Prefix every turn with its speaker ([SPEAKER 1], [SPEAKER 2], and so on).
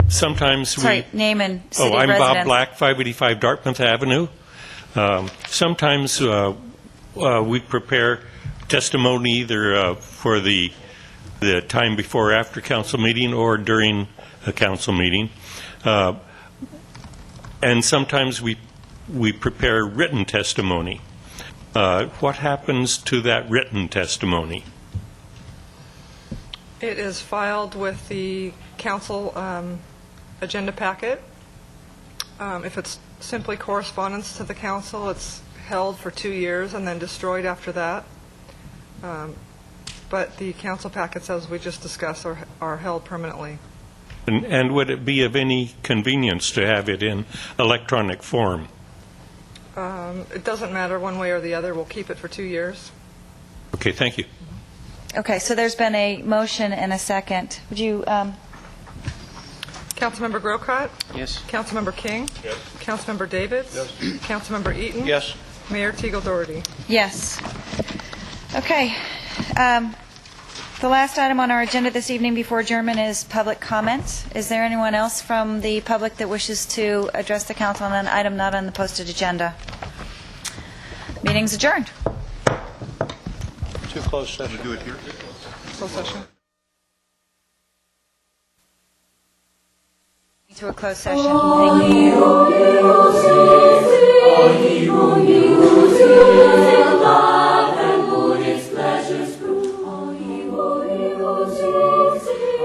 [SPEAKER 1] Sometimes we...
[SPEAKER 2] Sorry, name and city
[SPEAKER 1] Oh, I'm Bob
[SPEAKER 2] residence.
[SPEAKER 1] Black, 585 Dartmouth Avenue. Um, Sometimes uh, uh, we prepare testimony either uh, for the, the time before or after council meeting or during a council meeting. Uh, And sometimes we, we prepare written testimony. Uh, What happens to that written testimony?
[SPEAKER 3] It is filed with the council um, agenda packet. Um, If it's simply correspondence to the council, it's held for two years and then destroyed after that. Um, But the council packets, as we just discussed, are are held permanently.
[SPEAKER 1] And- And would it be of any convenience to have it in electronic form?
[SPEAKER 3] Um, It doesn't matter one way or the other, we'll keep it for two years.
[SPEAKER 1] Okay, thank you.
[SPEAKER 2] Okay, so there's been a motion and a second. Would you, um,
[SPEAKER 3] Councilmember Grocott?
[SPEAKER 4] Yes.
[SPEAKER 3] Councilmember King? Yes. Councilmember Davids? Yes. Councilmember Eaton?
[SPEAKER 4] Yes.
[SPEAKER 3] Mayor Teagle Doherty?
[SPEAKER 2] yes. Okay. Um, The last item on our agenda this evening before adjournment is public comment. Is there anyone else from the public that wishes to address the council on an item not on the posted agenda? Meeting's adjourned.
[SPEAKER 4] Too close session.
[SPEAKER 3] Closed session.
[SPEAKER 2] To a closed session.
[SPEAKER 5] Only you,